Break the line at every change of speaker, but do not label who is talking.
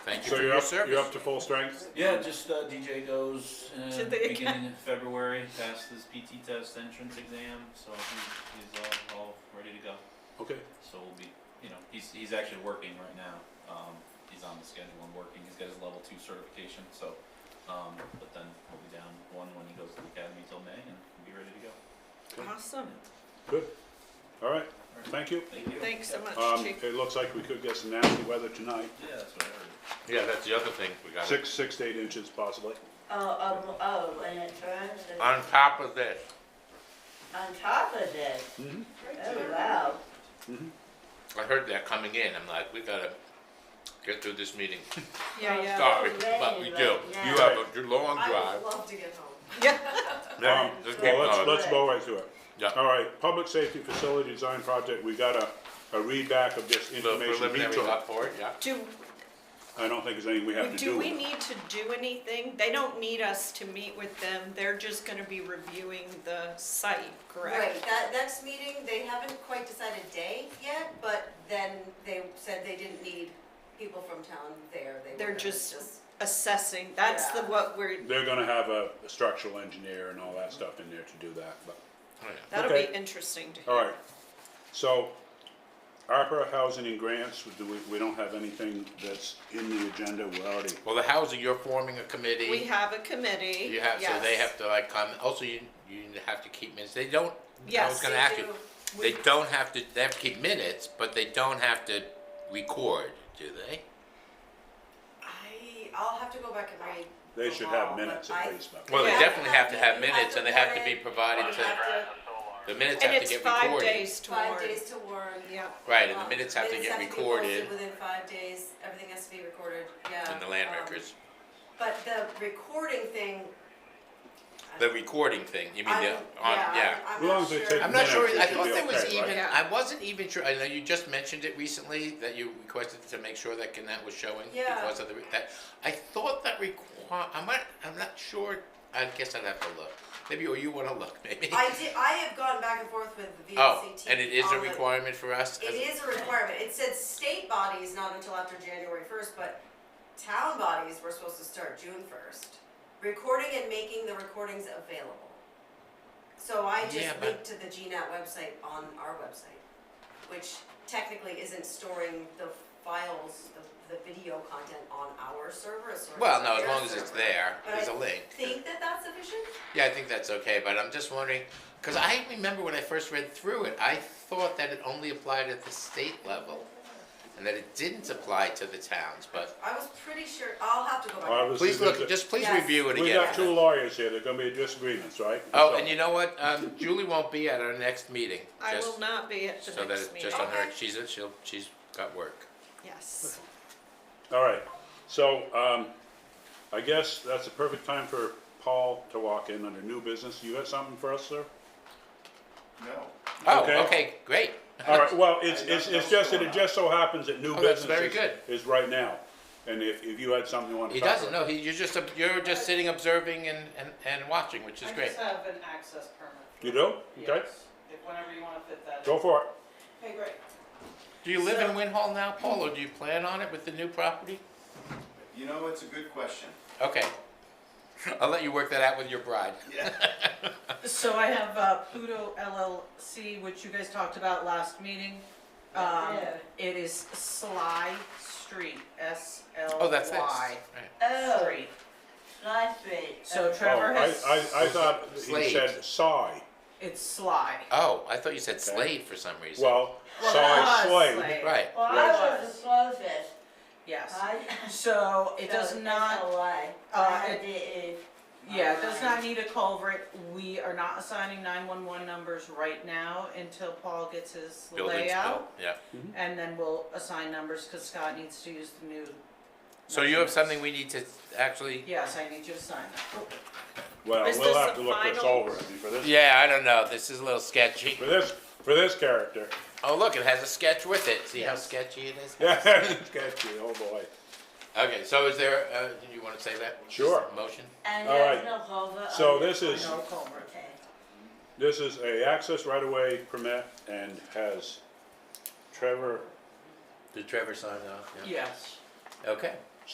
Thank you
So
for your
you're up, you're
service.
up to full strength?
Yeah, just uh, DJ goes uh,
To the
beginning
academy.
of February, passed his PT test entrance exam, so he, he's all, all ready to go.
Okay.
So we'll be, you know, he's, he's actually working right now. Um, he's on the schedule and working. He's got his level two certification, so, um, but then we'll be down one when he goes to the academy till May and we'll be ready to go.
Awesome.
Good. All right. Thank you.
Thank you.
Thanks so much,
Um,
Chief.
it looks like we could get some nasty weather tonight.
Yeah, that's what I heard.
Yeah, that's the other thing we got.
Six, six to eight inches possibly.
Oh, um, oh, and it turns, it-
On top of that,
on top of this,
Mm-hmm.
Mhm.
oh, wow.
I heard that coming in, I'm like, we gotta get through this meeting.
Yeah, yeah.
Sorry, but we do. You have a d- long
I
drive.
would love to get home.
Um,
Just keep
Well, let's,
going.
let's go right through it.
Yeah.
All right, public safety facility design project, we got a, a read back of this
The
information.
preliminary
Vito.
up for it, yeah.
Do,
I don't think there's anything we have to do
do
with
we
it.
need to do anything? They don't need us to meet with them. They're just gonna be reviewing the site,
Right,
correct?
that next meeting, they haven't quite decided day yet, but then they said they didn't need people from town there. They were
They're
gonna
just assessing. That's the,
Yeah.
what we're,
They're gonna have a a structural engineer and all that stuff in there to do that, but,
Oh, yeah.
that'll be
Okay.
interesting to hear.
all right. So, ARPA housing and grants, we, do- we don't have anything that's in the agenda, we're already,
Well, the housing, you're forming a
We
committee.
have a committee.
You have, so they
yes.
have to like come, also you, you have to keep minutes. They don't, I was
Yes,
gonna
they
ask you.
do.
They don't have to, they have to keep minutes, but they don't have to record, do they?
I, I'll have to go back and read.
they
the
should
law,
have
but
minutes
I-
at least, but.
Well, they
Yeah.
definitely have to have
You
minutes and they have to be
warn it,
provided
you
to,
have to-
the minutes
And
have to
it's
get
five
recorded.
days to
Five
warn.
days to warn.
Yeah.
Right, and the
Um,
minutes have to
minutes
get
be posted
recorded
Within five days, everything has to be recorded, yeah.
in the land
um,
records.
But the recording thing. I-
The recording thing, you mean
I'm-
the, on,
I'm-
yeah.
I'm
As long
not
as they
sure.
take
I'm not sure,
Minutes,
I
it should
thought
be
there was
okay, right?
even,
Yeah.
I wasn't even sure, I know you just mentioned it recently, that you requested to make sure that Gannett was showing
Yeah.
because of the, re- that, I thought that require, I might, I'm not sure, I guess I'd have to look. Maybe, or you wanna look, maybe?
I did, I have gone back and forth with the VLCT.
Oh, and it is a
on the-
requirement for us?
It
as-
is a requirement. It said state bodies not until after January first, but town bodies were supposed to start June first. Recording and making the recordings available. So I
Yeah,
just
but-
linked to the GNAT website on our website, which technically isn't storing the files, the, the video content on our server, it's storing it
Well,
on
no, as
their
long as it's
server.
there,
But
there's
I
a link.
Think that that's sufficient?
Yeah, I think that's okay, but I'm just wondering, because I remember when I first read through it, I thought that it only applied at the state level and that it didn't apply to the towns, but
I was pretty sure, I'll have to go back.
Obviously,
please
there's
look,
a-
just please
Yes.
review it again.
We got two lawyers here, there're gonna be disagreements, right?
Oh, and you know what? Um, Julie won't be at our next meeting.
I
just
will not be at the
So that
next
it's
meeting.
just on her,
Okay.
she's, she'll, she's got work.
Yes.
All right, so, um, I guess that's a perfect time for Paul to walk in under new business. You got something for us, sir?
No.
Oh,
Okay.
okay, great.
All right, well, it's,
I got
it's, it's
no
just that it
going on.
just so happens that new
Oh, that's
business
very
is-
good.
is right now. And if, if you had something you wanted
He
to talk about.
doesn't, no, he, you're just, ob- you're just sitting observing and, and, and watching, which is
I
great.
uh,
just have an access permit.
You do? Okay,
Yes. If- Whenever you want to fit that in.
go for it.
Okay, great.
Do you live in
So-
Win Hall now, Paul, or do you plan on it with the new property?
You know, it's a good question.
Okay. I'll let you work that out with your bride.
So I have uh, Pluto LLC, which you guys talked about last meeting. Um,
Yeah.
It is Sly Street, S L Y.
Oh, that's this. Right.
Oh,
Street.
Sly Street.
So
okay.
Oh,
Trevor
I,
has,
I, I thought he
Slade.
said sigh.
it's Sly.
Oh, I thought you said Slade for some reason.
Well,
Well,
sigh
that was
Slade.
Right.
Well, I was the closest.
Yes.
I,
So it does
so it's
not,
a lie.
uh,
I
it-
did.
Yeah, it does not need a culvert. We are not assigning nine-one-one numbers right now until Paul gets his
Building's
layout.
built, Yeah.
And then we'll assign numbers, cause Scott needs to use the new.
So you have something we need to actually,
Yes, I need you to sign that.
Well,
Is
we'll
this
have
the
to look this
final?
over, I mean, for this,
yeah, I don't know, this is a little sketchy.
for this, for this character.
Oh, look, it has a sketch with it. See how
Yes.
sketchy it is?
Yeah, it's sketchy, oh boy.
Okay, so is there, uh, do you wanna say that?
Sure.
Motion?
And
All
there's
right.
no cover. on
So
it.
this is,
No culvert.
Okay.
this is a access right-of-way permit and has Trevor
Did Trevor sign off?
Yes.
Okay,